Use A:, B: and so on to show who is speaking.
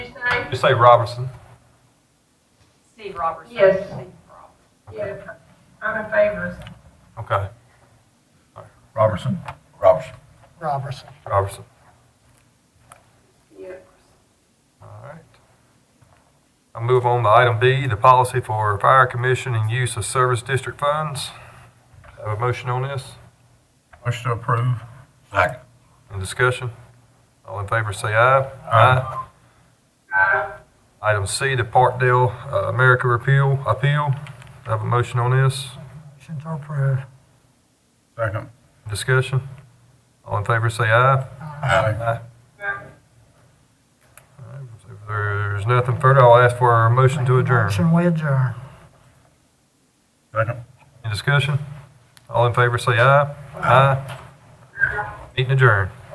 A: you say Robertson?
B: Steve Robertson.
C: Yes.
B: Steve Robertson.
C: Yes, I'm in favor.
A: Okay,
D: Robertson? Robertson.
E: Robertson.
A: Robertson.
C: Yes.
A: All right. I move on to item B, the policy for fire commission and use of service district funds. Have a motion on this?
D: Motion to approve. Second.
A: Any discussion? All in favor, say aye.
D: Aye.
A: Item C, the Parkdale uh, America repeal, appeal. Have a motion on this?
E: Motion to approve.
D: Second.
A: Discussion? All in favor, say aye.
D: Aye.
A: If there's nothing further, I'll ask for a motion to adjourn.
E: Motion we adjourn.
D: Second.
A: Any discussion? All in favor, say aye. Aye. Meeting adjourned.